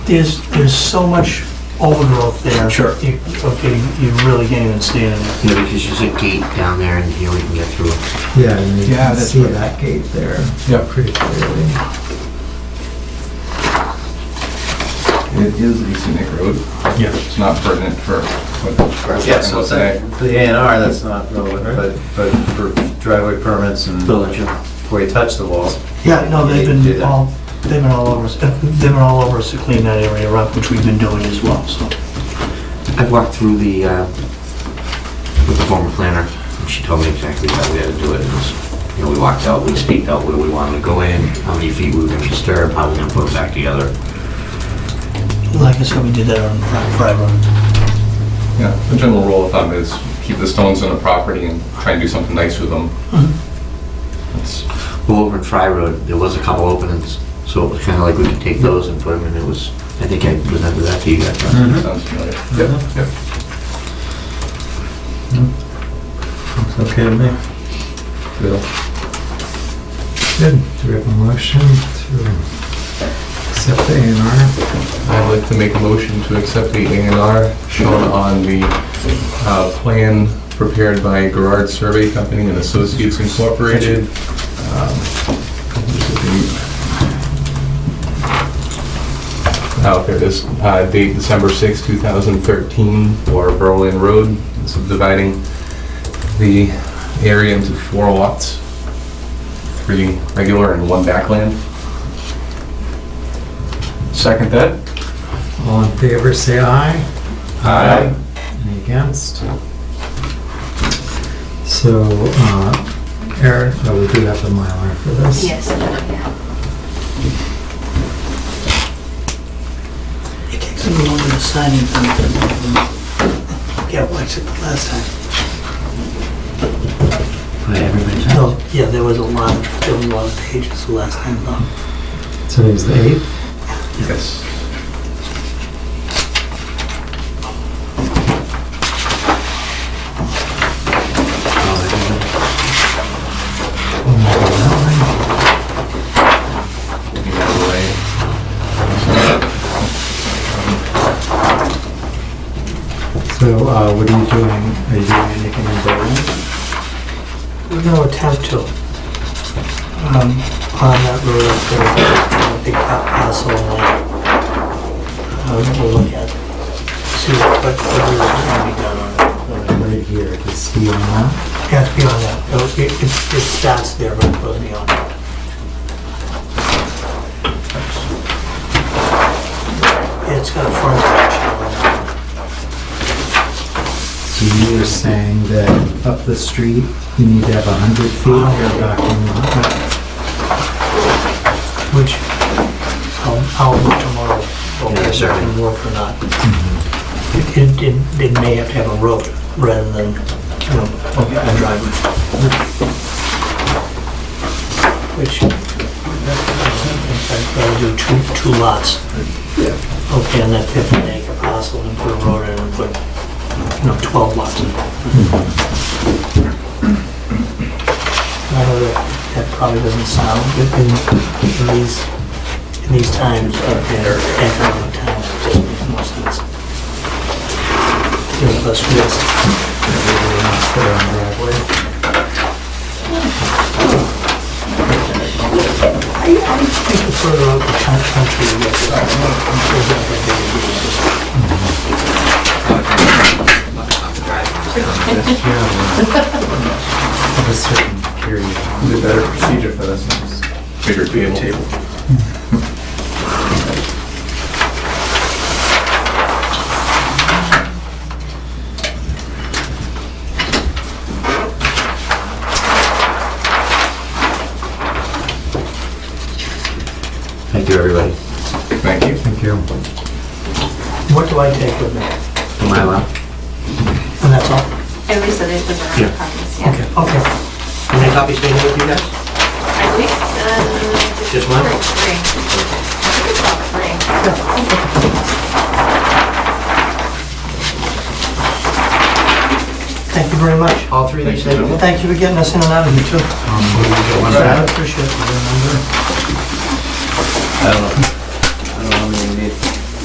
there's, there's so much overgrowth there. Sure. You- Okay, you really can't even stand in it. Yeah, because there's a gate down there and here we can get through. Yeah, and you Yeah, can that's see right. that gate there Yep. pretty clearly. It is a scenic road. Yeah. It's not pertinent for what we're talking Yeah, about so it's like, today. for the A and R, that's not relevant, but, but for driveway permits and where you touch the walls. Yeah, no, they've Yeah, been yeah. all, they've been all over us, they've been all over us to clean that area up, which we've been doing as well, so. I've walked through the, uh, with the former planner, and she told me exactly how we had to do it. It was, You know, we walked out, we staked out where we wanted to go in, how many feet we were gonna disturb, how we were gonna put it back together. Like I said, we did that on Fri- Fry Road. Yeah, the general rule of thumb is keep the stones on the property and try and do something nice with them. That's- Well, over in Fry Road, there was a couple openings, so it was kinda like we could take those and put them in. It was, I think I presented that to you guys. right? Sounds familiar. Looks okay to me. Good. Do we have a motion to accept the A and R? I'd like to make a motion to accept the A and R shown on the uh, plan prepared by Gerard Survey Company and Associates Incorporated. Um, Oh, there it is, Uh, date December 6, 2013, for Berlin Road, subdividing the area into four lots, three regular and one backland. Second that? All in favor, say aye. Aye. Any against? So, uh, Eric, oh, we do have the Mylar for this. Yes, yeah. It takes a little longer to sign anything than, yeah, well, except the last time. Put everybody's- No, yeah, there was a lot, there was a lot of pages the last time, though. Today's the eighth. Yes. Oh, everybody. So, uh, what are you doing? Are you doing anything in Berlin? No attempt to, um, on that road up there, a big pa- parcel of land. Uh, we'll look at, see what, what is gonna be done on it. Right here, just see on that. It has to be on that, It'll- it, it, it starts there, but it goes beyond. It's got a front edge. So you were saying that up the street, you need to have a hundred feet of your backing lot. Which, um, I'll, I'll look tomorrow, whether Yeah, it sure. can work or not. It, it- it, it may have to have a road rather than, you know, a driveway. Which, I'd rather do two, two lots. Okay, and that 15 acre parcel and put a road in and put, you know, 12 lots in. I know that, that probably doesn't sound good in, in these, in these times, but in economic times, it just makes more sense. There's less risk. There on the driveway. I think the further out the coun- country you get, the better Of a certain period. The better procedure for this is bigger table. Thank you, everybody. Thank you. Thank you. it is. What do I take with me? Am I allowed? And that's all? At least it is the Yeah. brown copies, yeah. Okay, okay. How many copies do you have with you guys? I think, um... Just one? Three, three. I think it's about three. Thank you very much. All three of these things? Well, thank you for getting us in and out of here too. I appreciate it. I don't know.